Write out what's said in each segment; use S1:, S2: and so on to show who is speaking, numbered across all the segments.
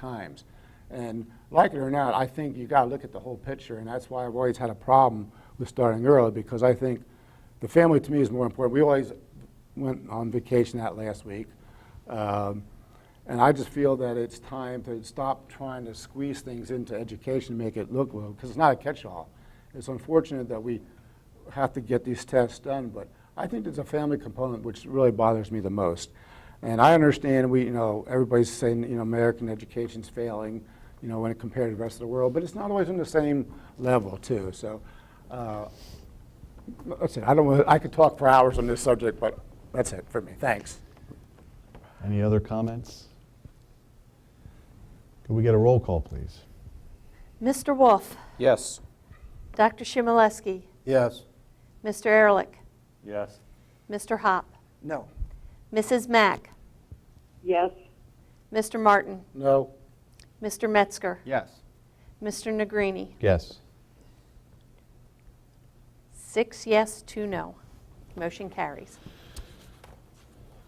S1: times. And like it or not, I think you gotta look at the whole picture, and that's why I've always had a problem with starting early, because I think the family to me is more important. We always went on vacation that last week. Um, and I just feel that it's time to stop trying to squeeze things into education, to make it look well, because it's not a catch-all. It's unfortunate that we have to get these tests done, but I think there's a family component which really bothers me the most. And I understand we, you know, everybody's saying, you know, American education's failing, you know, when it compared to the rest of the world, but it's not always on the same level, too. So, uh, that's it. I don't, wanna- I could talk for hours on this subject, but that's it for me. Thanks.
S2: Any other comments? Could we get a roll call, please?
S3: Mr. Wolf,
S4: Yes.
S3: Dr. Shimeleski,
S4: Yes.
S3: Mr. Ehrlich,
S4: Yes.
S3: Mr. Hop,
S4: No.
S3: Mrs. Mack,
S5: Yes,
S3: Mr. Martin,
S1: No?
S3: Mr. Metzger,
S4: Yes.
S3: Mr. Negrini.
S2: Yes.
S3: Six yes, two no. Motion carries.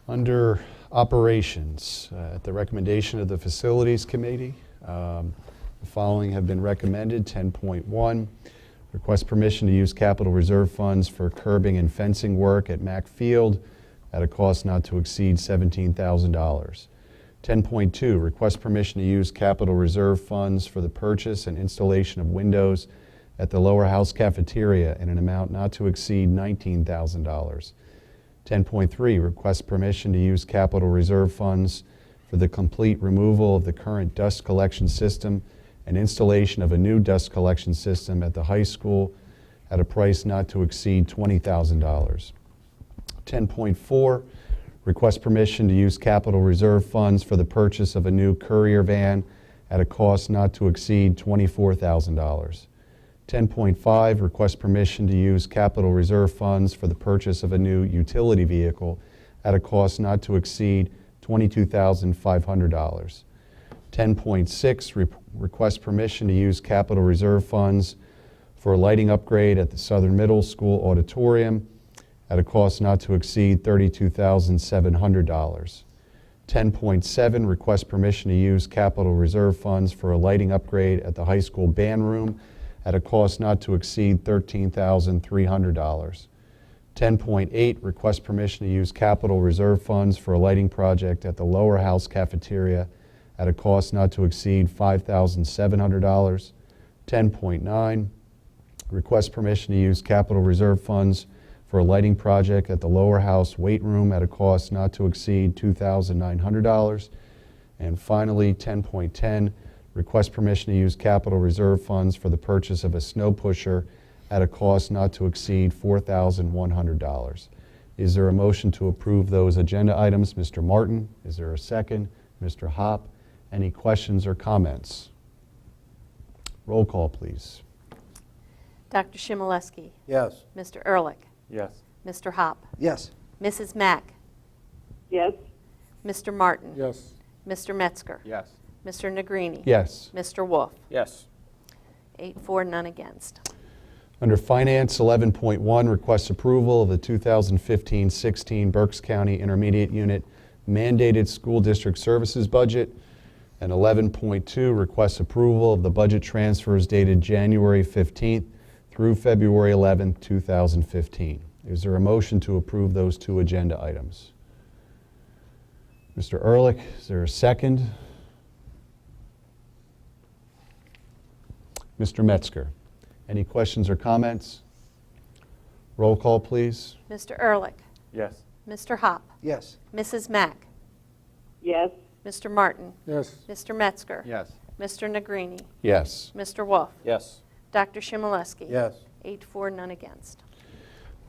S2: Under operations, uh, at the recommendation of the Facilities Committee, um, the following have been recommended. 10.1, request permission to use capital reserve funds for curbing and fencing work at Mack Field at a cost not to exceed $17,000. 10.2, request permission to use capital reserve funds for the purchase and installation of windows at the lower house cafeteria in an amount not to exceed $19,000. 10.3, request permission to use capital reserve funds for the complete removal of the current dust collection system and installation of a new dust collection system at the high school at a price not to exceed $20,000. 10.4, request permission to use capital reserve funds for the purchase of a new courier van at a cost not to exceed $24,000. 10.5, request permission to use capital reserve funds for the purchase of a new utility vehicle at a cost not to exceed $22,500. 10.6, re- request permission to use capital reserve funds for a lighting upgrade at the Southern Middle School auditorium at a cost not to exceed $32,700. 10.7, request permission to use capital reserve funds for a lighting upgrade at the high school band room at a cost not to exceed $13,300. 10.8, request permission to use capital reserve funds for a lighting project at the lower house cafeteria at a cost not to exceed $5,700. 10.9, request permission to use capital reserve funds for a lighting project at the lower house weight room at a cost not to exceed $2,900. And finally, 10.10, request permission to use capital reserve funds for the purchase of a snow pusher at a cost not to exceed $4,100. Is there a motion to approve those agenda items? Mr. Martin, is there a second? Mr. Hop, any questions or comments? Roll call, please.
S3: Dr. Shimeleski,
S4: Yes.
S3: Mr. Ehrlich,
S4: Yes.
S3: Mr. Hop,
S4: Yes.
S3: Mrs. Mack,
S5: yes,
S3: Mr. Martin,
S1: Yes.
S3: Mr. Metzger,
S4: Yes.
S3: Mr. Negrini.
S2: Yes.
S3: Mr. Wolf,
S4: Yes.
S3: eight, four, none against.
S2: Under Finance, 11.1, requests approval of the 2015-16 Berks County Intermediate Unit mandated school district services budget, and 11.2, requests approval of the budget transfers dated January 15th through February 11th, 2015. Is there a motion to approve those two agenda items? Mr. Ehrlich, is there a second? Mr. Metzger, any questions or comments? Roll call, please.
S3: Mr. Ehrlich,
S4: Yes.
S3: Mr. Hop,
S4: Yes.
S3: Mrs. Mack,
S5: yes,
S3: Mr. Martin,
S1: Yes.
S3: Mr. Metzger,
S4: Yes.
S3: Mr. Negrini,
S2: Yes.
S3: Mr. Wolf,
S4: Yes.
S3: Dr. Shimeleski.
S4: Yes.
S3: Eight, four, none against.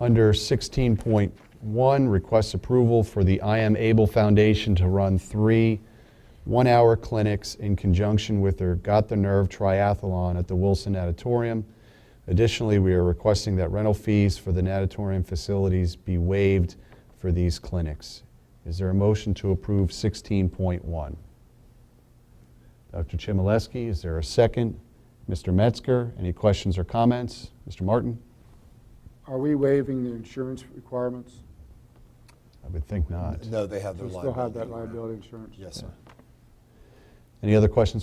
S2: Under 16.1, requests approval for the I Am Able Foundation to run three one-hour clinics in conjunction with their Got the Nerve Triathlon at the Wilson Natatorium. Additionally, we are requesting that rental fees for the natatorium facilities be waived for these clinics. Is there a motion to approve 16.1? Dr. Chmielewski, is there a second? Mr. Metzger, any questions or comments? Mr. Martin?
S1: Are we waiving the insurance requirements?
S2: I would think not.
S6: No, they have their
S1: We
S6: liability.
S1: still have that liability insurance?
S6: Yes, sir.
S2: Any other questions or